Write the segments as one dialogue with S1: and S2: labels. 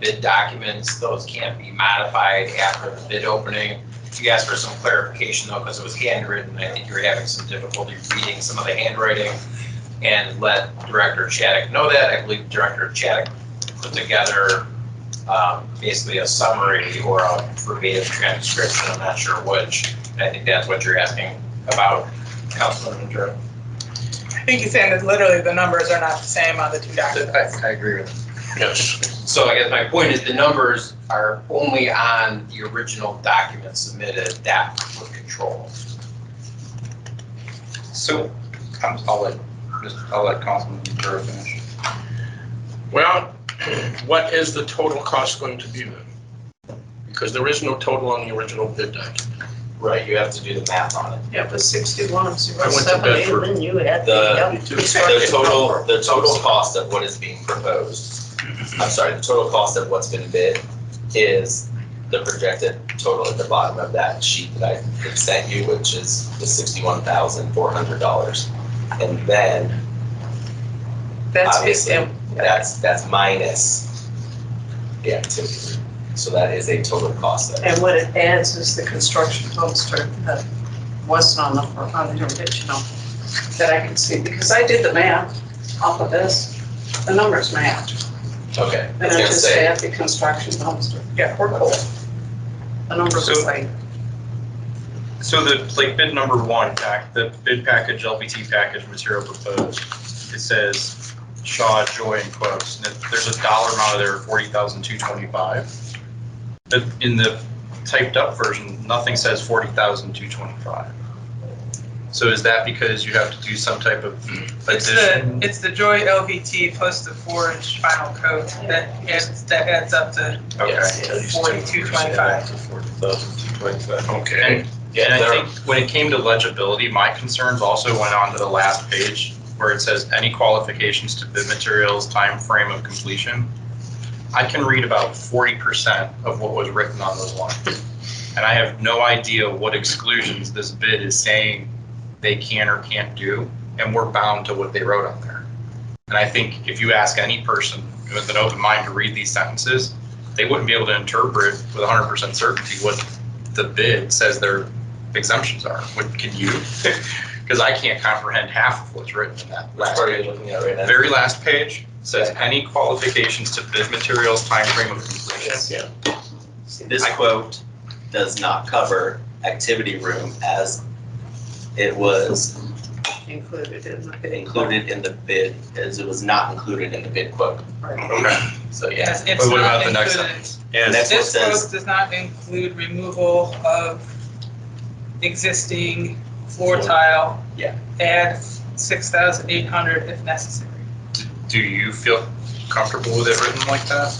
S1: bid documents, those can't be modified after the bid opening. You asked for some clarification though, because it was handwritten, I think you were having some difficulty reading some of the handwriting. And let Director Chaddock know that, I believe Director Chaddock put together um, basically a summary or a verbatim transcription, I'm not sure which. And I think that's what you're asking about, Councilman Ventura.
S2: I think he's saying that literally the numbers are not the same on the two documents.
S3: I agree with
S4: Yes,
S1: So I guess my point is the numbers are only on the original document submitted that were controlled.
S3: So, I'm, I'll let, just, I'll let Councilman Ventura finish.
S4: well, what is the total cost going to be then? Because there is no total on the original bid document.
S1: Right, you have to do the math on it.
S5: Yeah, it was sixty-one,
S4: I
S5: zero
S4: went to
S5: seven, eight,
S4: Bedford.
S5: then you had
S6: The,
S5: the.
S6: the total, the total cost of what is being proposed, I'm sorry, the total cost of what's been bid is the projected total at the bottom of that sheet that I sent you, which is the sixty-one thousand four hundred dollars. And then,
S5: That's
S6: obviously,
S5: fifty,
S6: that's, that's minus the activity. So that is a total cost there.
S5: and what it adds is the construction dumpster that wasn't on the, on the original that I can see, because I did the math off of this, the numbers match.
S6: Okay, I
S5: And
S6: was
S5: I
S6: gonna
S5: just
S6: say,
S5: add the construction dumpster,
S2: Yeah, we're cool.
S5: the numbers are
S7: So-
S5: like,
S7: So the, like bid number one, pack, the bid package, LPT package material proposed, it says Shaw, Joy, and Quotes. And it- There's a dollar amount there, forty thousand two twenty-five. But in the typed up version, nothing says forty thousand two twenty-five. So is that because you have to do some type of
S2: It's the,
S7: addition?
S2: it's the Joy LVT plus the four-inch final coat that adds, that adds up to
S7: Okay.
S6: yes.
S2: forty-two twenty-five.
S7: And, and
S6: Yeah,
S7: I
S6: there-
S7: think when it came to legibility, my concerns also went on to the last page where it says any qualifications to bid materials, time frame of completion. I can read about forty percent of what was written on those lines. And I have no idea what exclusions this bid is saying they can or can't do, and we're bound to what they wrote on there. And I think if you ask any person with an open mind to read these sentences, they wouldn't be able to interpret with hundred percent certainty what the bid says their exemptions are. What can you? Because I can't comprehend half of what's written in that
S6: Which
S7: last
S6: part are you
S7: page.
S6: looking at right now?
S7: Very last page says any qualifications to bid materials, time frame of completion.
S4: Yeah.
S6: This quote does not cover activity room as it was
S5: included in the bidding.
S6: included in the bid, as it was not included in the bid quote.
S7: Okay.
S6: So yeah,
S2: Yes, it's
S7: But what about
S2: not
S7: the next
S2: included.
S6: Next one
S2: This
S6: says,
S2: quote does not include removal of existing floor tile.
S6: Yeah.
S2: Add six thousand eight hundred if necessary.
S7: Do you feel comfortable with it written like that?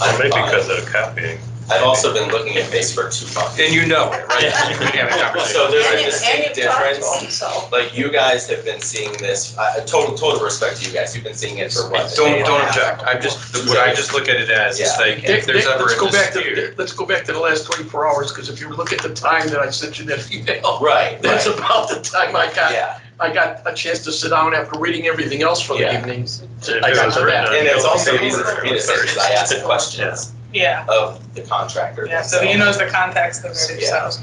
S6: I'm
S8: Maybe
S6: fine.
S8: because of the copying.
S6: I've also been looking at this for two months.
S7: And you know it, right? You can have a conversation.
S6: So there's
S5: And
S6: a
S5: you- and
S6: distinct
S5: you talked to
S6: difference.
S5: him, so.
S6: Like you guys have been seeing this, I- I- total, total respect to you guys, you've been seeing it for what? a day
S7: Don't,
S6: and a
S7: don't
S6: half?
S7: object. I'm just, what I just look at it as is
S6: Yeah.
S7: like, if
S4: Dick,
S7: there's
S4: Dick,
S7: ever
S4: let's
S7: a
S4: go back
S7: dispute.
S4: to, let's go back to the last 24 hours, because if you look at the time that I sent you that email,
S6: Right,
S4: that's
S6: right,
S4: about the time I got,
S6: yeah.
S4: I got a chance to sit down after reading everything else for the
S6: Yeah.
S4: evening.
S8: If
S4: I
S8: it
S4: got
S8: was
S4: to
S8: written
S4: that.
S8: on
S6: And it's
S8: Bill
S6: also
S8: Clinton,
S6: easy for me to say, because I ask questions
S2: Yeah,
S6: of the contractor.
S2: yeah, so he knows the context of it,
S6: Yeah.
S2: so.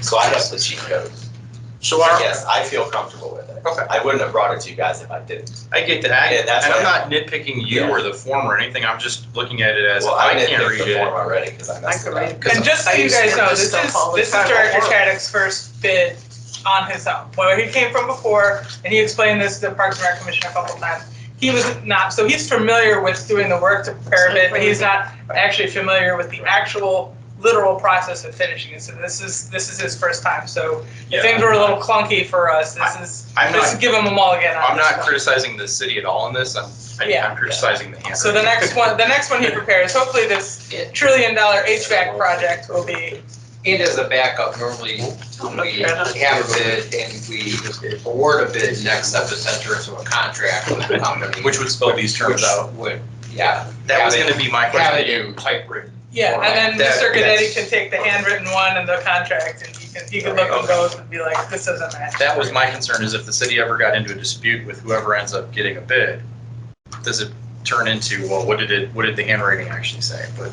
S6: So I have the cheat code.
S4: So
S6: So
S4: our,
S6: yes, I feel comfortable with it.
S7: Okay.
S6: I wouldn't have brought it to you guys if I didn't.
S7: I get that,
S6: Yeah, that's
S7: and I'm not
S6: what
S7: nitpicking you
S6: Yeah.
S7: or the form or anything, I'm just looking at it as,
S6: Well,
S7: I
S6: didn't
S7: can't
S6: pick
S7: read
S6: the form
S7: it.
S6: already because I messed
S5: I
S6: it
S5: could
S6: up.
S5: read it.
S2: And just so
S5: I
S2: you
S5: used
S2: guys
S5: to
S2: know,
S5: do
S2: this is,
S5: stuff all the
S2: this is
S5: time at
S2: Director
S5: work.
S2: Chaddock's first bid on his own. Where he came from before, and he explained this to the Parks and Rec Commission a couple times. He was not, so he's familiar with doing the work to prepare a bid, but he's not actually familiar with the actual literal process of finishing it. So this is, this is his first time, so if
S7: Yeah,
S2: things were a little clunky for us. This
S7: I'm
S2: is, this
S7: not,
S2: is give him a mulligan on
S7: I'm
S2: this
S7: not
S2: one.
S7: criticizing the city at all in this, I'm, I-
S2: Yeah.
S7: I'm criticizing the handwriting.
S2: So the next one, the next one he prepares, hopefully this trillion dollar HVAC project will be,
S1: And as a backup, normally when we have a bid and we award a bid, next up is enter into a contract with the company.
S7: Which would spell these terms
S1: which
S7: out.
S1: Would, yeah.
S7: That was gonna be my
S1: Have it
S7: question.
S1: in typewritten.
S2: yeah, and then
S1: That-
S2: Mr.
S1: that's-
S2: Gaddetti can take the handwritten one and the contract and he can, he can look at both and be like, this doesn't match.
S7: That was my concern, is if the city ever got into a dispute with whoever ends up getting a bid, does it turn into, well, what did it, what did the handwriting actually say? But